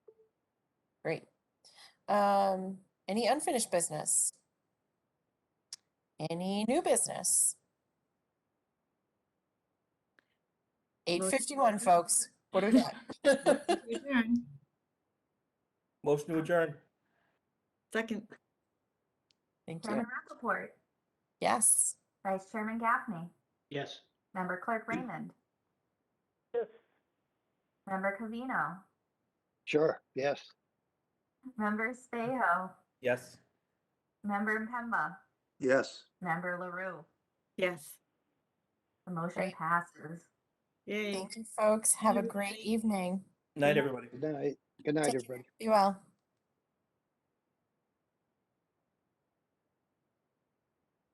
Great. Um, any unfinished business? Any new business? Eight fifty-one, folks. What do we got? Adjourn. Motion to adjourn. Second, Thank you. Chairman Rappaport, Yes. Vice Chairman Gaffney, Yes. Member Clerk Raymond. Member Covino, Sure, yes. Member Spaho, Yes. Member Pemba, Yes. Member LaRue. yes. The motion Great. passes. Yay. Thank you, folks. Have a Thank you. great evening. Night, everybody. Good night. Good night, Take care. everybody. Be well.